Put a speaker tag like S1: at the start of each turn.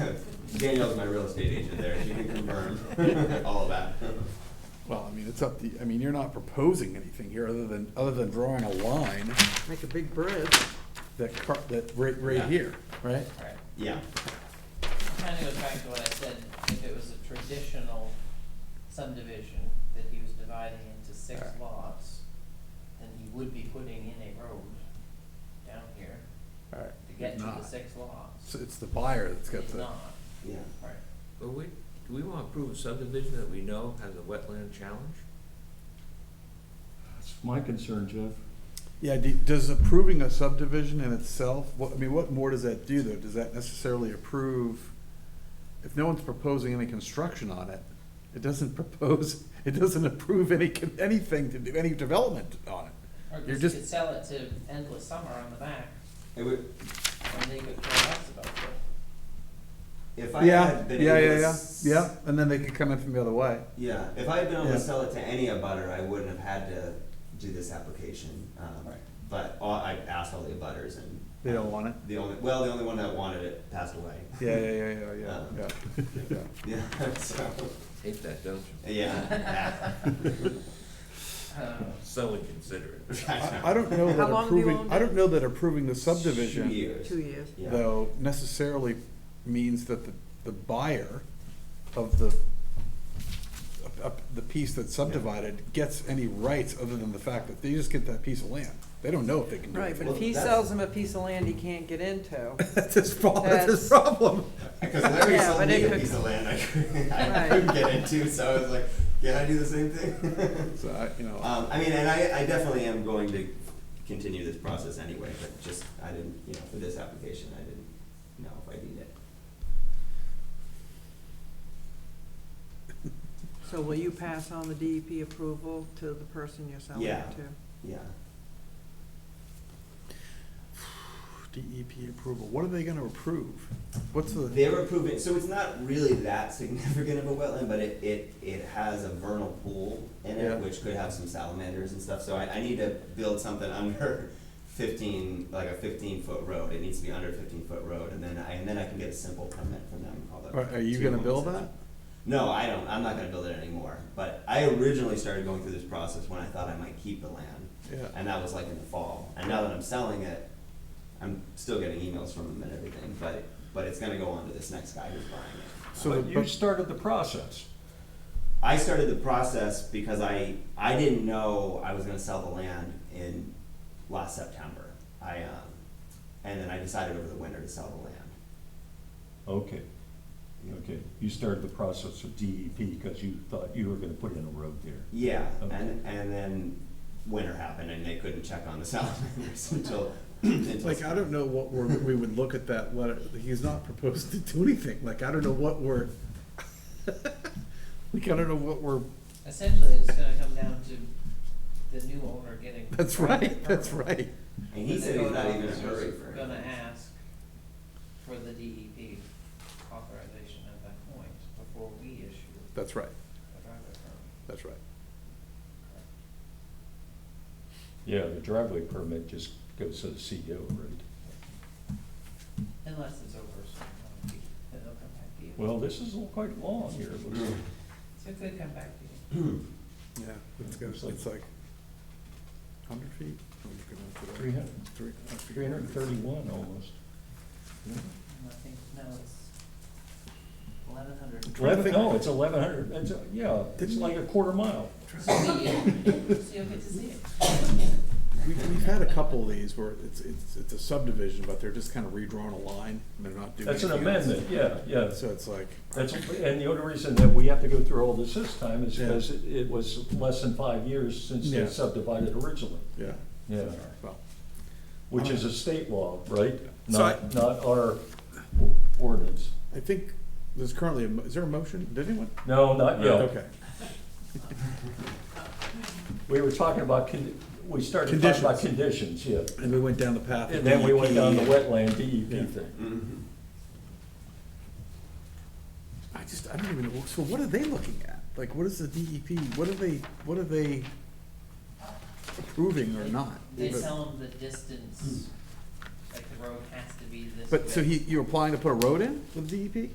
S1: Danielle's my real estate agent there, she can confirm all of that.
S2: Well, I mean, it's up to, I mean, you're not proposing anything here other than, other than drawing a line
S3: Make a big bridge.
S2: that, car- that, right, right
S1: Yeah.
S2: here, right?
S4: Alright,
S1: Yeah,
S4: kind of goes back to what I said, if it was a traditional subdivision that he was dividing into six
S2: Alright.
S4: lots, then he would be putting in a road down here
S2: All right.
S4: to get to the
S2: Not.
S4: six lots.
S2: So it's the buyer that's got
S4: He's
S2: the,
S4: not,
S1: yeah.
S4: right,
S5: But we, do we wanna approve a subdivision that we know has a wetland challenge?
S6: That's my concern, Jeff.
S2: yeah, do- does approving a subdivision in itself, what, I mean, what more does that do though? Does that necessarily approve? If no one's proposing any construction on it, it doesn't propose, it doesn't approve any, con- anything to do, any development on it.
S4: or
S2: You're
S4: because he
S2: just-
S4: could sell it to Endless Summer on the back,
S1: It would,
S4: and they could call us about it.
S1: if I
S2: Yeah,
S1: had been
S2: yeah,
S1: able
S2: yeah,
S1: to
S2: yeah,
S1: s-
S2: yeah, and then they could come in from the other way.
S1: Yeah, if I had been able
S2: Yeah.
S1: to sell it to any abutter, I wouldn't have had to do this application. Um,
S4: Right.
S1: But all, I asked all the abutters and.
S2: They don't want it?
S1: The only, well, the only one that wanted it passed away.
S2: Yeah, yeah, yeah, yeah, yeah,
S1: Um,
S2: yeah, yeah.
S1: Yeah, so,
S5: Hate that, don't you?
S1: yeah.
S4: Um,
S5: So inconsiderate.
S2: I, I don't know
S3: How
S2: that
S3: long have you
S2: approving,
S3: owned
S2: I
S3: it?
S2: don't know that approving the
S1: Two
S2: subdivision,
S1: years.
S3: Two years.
S1: Yeah.
S2: though, necessarily means that the, the buyer of the, of- of the piece that's subdivided gets any rights other than the fact that they just get that piece of land. They don't know if they can do
S3: Right,
S2: it.
S3: but if he
S1: Well, that's-
S3: sells him a piece of land he can't get into,
S2: That's his problem, that's his problem.
S1: Because Larry
S3: Yeah,
S1: sold
S3: but
S1: me
S3: it
S1: a
S3: could-
S1: piece of land I couldn't, I
S3: Right.
S1: couldn't get into, so I was like, can I do the same thing?
S2: So, I, you know,
S1: Um, I mean, and I, I definitely am going to continue this process anyway, but just, I didn't, you know, for this application, I didn't know if I need it.
S3: so will you pass on the DEP approval to the person you're selling
S1: Yeah.
S3: it to?
S1: Yeah.
S2: DEP E approval, what are they gonna approve? What's the?
S1: They're approving, so it's not really that significant of a wetland, but it, it, it has a vernal pool in
S2: Yeah.
S1: it, which could have some salamanders and stuff, so I, I need to build something under fifteen, like a fifteen foot road, it needs to be under fifteen foot road, and then I, and then I can get a simple permit from them, although.
S2: Are- are you
S1: two
S2: gonna
S1: months
S2: build
S1: is
S2: that?
S1: not- No, I don't, I'm not gonna build it anymore, but I originally started going through this process when I thought I might keep the land,
S2: Yeah.
S1: and that was like in the fall, and now that I'm selling it, I'm still getting emails from them and everything, but, but it's gonna go on to this next guy who's buying it.
S2: So
S6: But
S2: the-
S6: you started the process.
S1: I started the process because I, I didn't know I was gonna sell the land in last September. I, um, and then I decided over the winter to sell the land.
S6: Okay, okay. You started the process of DEP because you thought you were gonna put in a road there.
S1: Yeah,
S6: Okay.
S1: and, and then winter happened and they couldn't check on the salamanders until, until.
S2: Like, I don't know what we're, we would look at that letter, he's not proposed to do anything, like, I don't know what we're, like, I don't know what we're,
S4: Essentially, it's gonna come down to the new owner getting.
S2: that's right, that's right.
S1: And he said he's not even in a hurry for
S4: Gonna
S1: it.
S4: ask for the DEP authorization at that point before we issue
S2: That's right,
S4: a driveway permit.
S2: that's right.
S6: Yeah, the driveway permit just goes to the CEO, right?
S4: Unless it's over a certain amount of feet, then they'll come back to you.
S6: Well, this is quite long here. It
S1: Mm.
S6: looks like.
S4: So it could come back to you.
S2: Yeah, it's gonna, it's like, hundred feet? I'm looking at it.
S6: 300.
S2: Three- I forget.
S6: 331 almost.
S4: And I think, no, it's eleven hundred.
S6: Eleven, no, it's 1,100, it's, a- yeah, it's
S2: Didn't-
S6: like a quarter mile.
S4: So you'll get to see it.
S2: We've, we've had a couple of these where it's, it's, it's a subdivision, but they're just kind of redrawn a line, and they're not doing
S6: That's an
S2: anything else.
S6: amendment, yeah, yeah.
S2: So it's like,
S6: That's, and the only reason that we have to go through all this this time is
S2: Yeah.
S6: because it it was less than five years since
S2: Yeah.
S6: they subdivided originally.
S2: yeah,
S6: Yeah,
S2: well,
S6: which is a state law, right?
S2: So I-
S6: Not, not our ordinance.
S2: I think there's currently, a mo- is there a motion, did anyone?
S6: No, not yet.
S2: Okay.
S6: We were talking about, con- we started talking about conditions, yeah.
S2: And we went down the path.
S6: And then we E. went down the wetland DEP thing.
S1: Mhm.
S2: I just, I don't even know, so what are they looking at? Like, what is the DEP, what are they, what are they approving or not?
S4: They
S2: But-
S4: tell them the distance, like the road has to be this
S2: But, so
S4: width.
S2: he, you're applying to put a road in with E DEP?